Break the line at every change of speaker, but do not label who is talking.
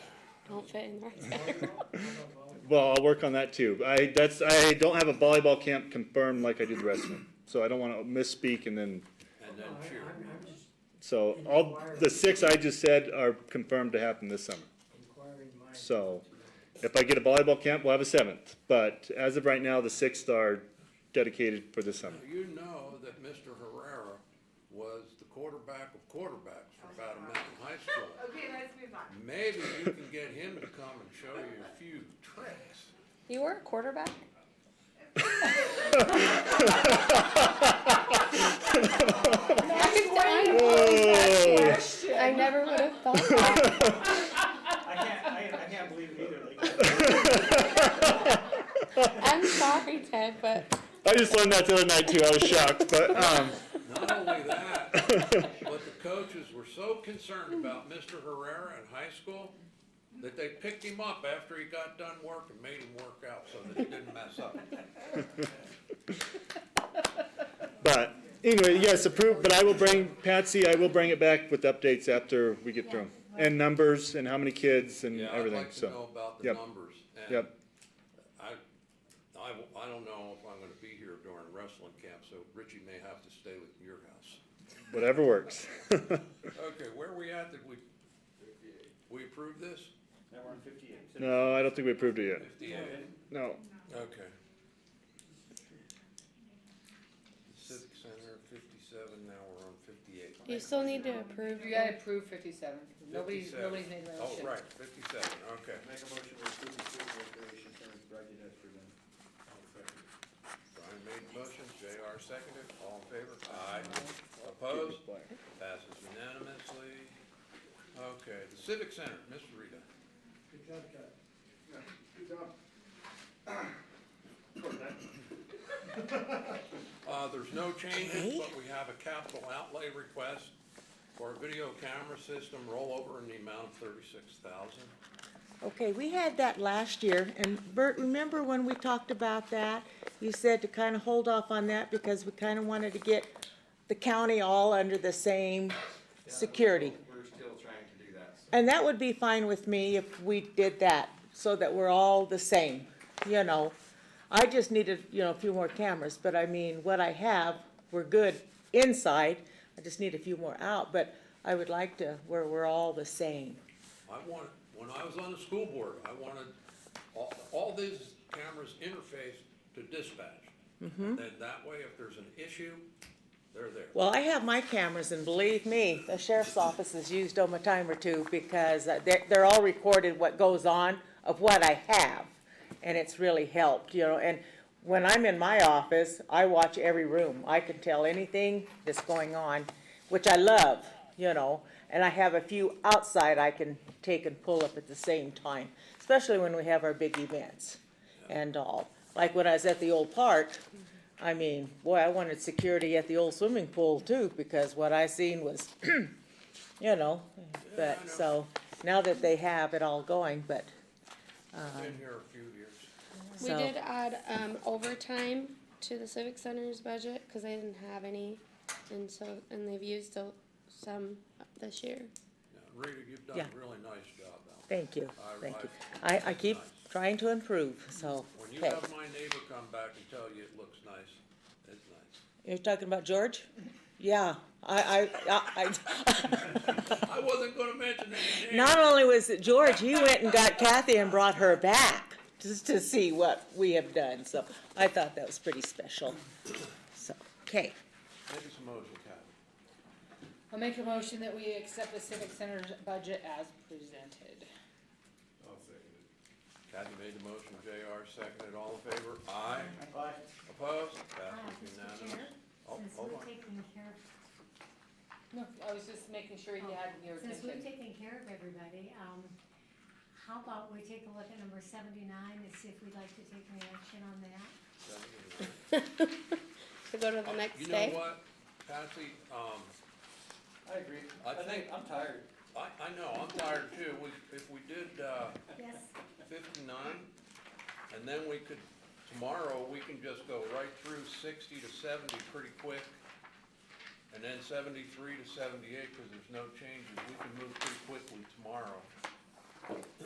Won't fit in there.
Well, I'll work on that too. I, that's, I don't have a volleyball camp confirmed like I do the rest of them, so I don't wanna misspeak and then,
And then cheer.
I'm, I'm just
so all, the six I just said are confirmed to happen this summer.
inquiring my.
So if I get a volleyball camp, we'll have a seventh, but as of right now, the sixth are dedicated for this summer.
You know that Mr. Herrera was the quarterback of quarterbacks for Battle Mountain High School.
Okay, let's move on.
Maybe you can get him to come and show you a few tricks.
You were a quarterback? I I never would have thought that.
I can't, I, I can't believe it either, like,
I'm sorry, Ted, but
I just learned that the other night too, I was shocked, but, um,
Not only that, but the coaches were so concerned about Mr. Herrera in high school that they picked him up after he got done work and made him work out so that he didn't mess up.
but anyway, yes, approved, but I will bring, Patsy, I will bring it back with updates after we get through 'em. And numbers and how many kids and
Yeah, I'd
everything,
like to know
so,
about the
Yep.
numbers. and
Yep.
I, I, w- I don't know if I'm gonna be here during wrestling camp, so Richie may have to stay with your house.
whatever works.
Okay, where are we at? Did we, we approve this?
now we're on fifty-eight. So-
No, I don't think we approved it yet.
Fifty-eight?
No.
Okay. Civic Center, fifty-seven, now we're on fifty-eight.
you still need to approve.
You gotta approve fifty-seven, nobody's,
57.
nobody's made a
Oh,
motion.
right, fifty-seven, okay.
Make a motion to approve the student recreation center budget as presented.
Brian made the motion, JR seconded, all in favor? Aye. Opposed? Passes unanimously. Okay, the Civic Center, Ms. Rita.
Good job, Ted.
Uh, there's no changes, but we have a capital outlay request for a video camera system rollover in the amount of thirty-six thousand.
Okay, we had that last year, and Bert, remember when we talked about that? You said to kind of hold off on that because we kind of wanted to get the county all under the same security.
We're still trying to do that, so
And that would be fine with me if we did that, so that we're all the same, you know? I just needed, you know, a few more cameras, but I mean, what I have, we're good inside. I just need a few more out, but I would like to, where we're all the same.
I wanted, when I was on the school board, I wanted all, all these cameras interface to dispatch. And then that way, if there's an issue, they're there.
Well, I have my cameras, and believe me, the sheriff's office has used them a time or two because uh, they're, they're all recorded what goes on of what I have. And it's really helped, you know, and when I'm in my office, I watch every room. I can tell anything that's going on, which I love, you know. And I have a few outside I can take and pull up at the same time, especially when we have our big events and all. Like when I was at the old park, I mean, boy, I wanted security at the old swimming pool too, because what I seen was, you know,
Yeah, I
but,
know.
so, now that they have it all going, but,
Been here a few years.
We
So-
did add um, overtime to the civic center's budget because they didn't have any, and so and they've used a, some this year.
Now, Rita, you've done
Yeah.
a really nice job out there.
thank you,
I-
thank you.
I-
I, I keep trying to improve, so,
When you
okay.
have my neighbor come back and tell you it looks nice, it's nice.
You're talking about George? Yeah, I, I, I, I,
I wasn't gonna mention any names.
not only was it George, he went and got Kathy and brought her back just to see what we have done, so I thought that was pretty special. So, okay.
Maybe some motion, Kathy.
I'll make a motion that we accept the civic center's budget as presented.
I'll second it.
Kathy made the motion, JR seconded, all in favor? Aye.
Bye.
Opposed?
Um,
Passes
Mr.
unanimous.
Chair,
Oh,
since
hold
we've
on.
taken care,
No, I was just making sure you had your
since we've
attention.
taken care of everybody, um, how about we take a look at number seventy-nine and see if we'd like to take any action on that?
To go to the next
You
day.
know what, Patsy, um,
I agree.
I think,
I'm tired.
I, I know, I'm tired too, we, if we did, uh,
Yes,
fifty-nine, and then we could, tomorrow, we can just go right through sixty to seventy pretty quick, and then seventy-three to seventy-eight, cause there's no changes, we can move pretty quickly tomorrow.